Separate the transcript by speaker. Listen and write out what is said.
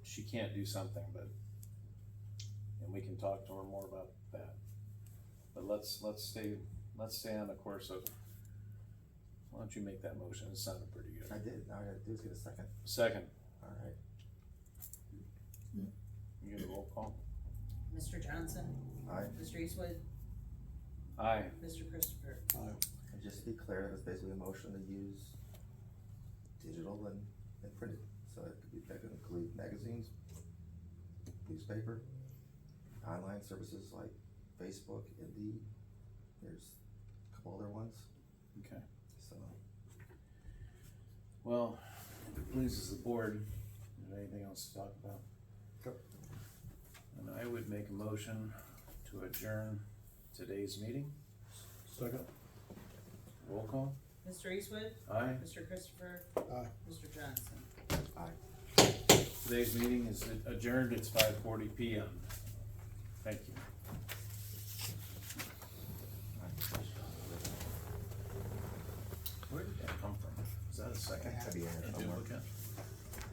Speaker 1: she can't do something, but, and we can talk to her more about that. But let's, let's stay, let's stay on the course of, why don't you make that motion, it sounded pretty
Speaker 2: I
Speaker 1: good.
Speaker 2: did, now I gotta do is get a second,
Speaker 1: Second,
Speaker 2: alright,
Speaker 1: you get a roll call?
Speaker 3: Mr. Johnson,
Speaker 2: I,
Speaker 3: Mr. Eastwood,
Speaker 1: Aye,
Speaker 3: Mr. Christopher.
Speaker 2: and just to be clear, that was basically a motion to use digital and, and printed, so it could be, that could include magazines, newspaper, online services like Facebook, Indeed, there's a couple other ones,
Speaker 1: okay.
Speaker 2: so.
Speaker 1: Well, if it pleases the board, is there anything else to talk about?
Speaker 2: Go.
Speaker 1: And I would make a motion to adjourn today's meeting.
Speaker 4: Second.
Speaker 1: Roll call?
Speaker 3: Mr. Eastwood,
Speaker 1: Aye.
Speaker 3: Mr. Christopher,
Speaker 4: Aye.
Speaker 3: Mr. Johnson.
Speaker 1: Today's meeting is adjourned. It's five forty P M. Thank you. Where did that come from? Is that a second?
Speaker 2: Happy to be here
Speaker 1: A
Speaker 2: somewhere.
Speaker 1: duplicate?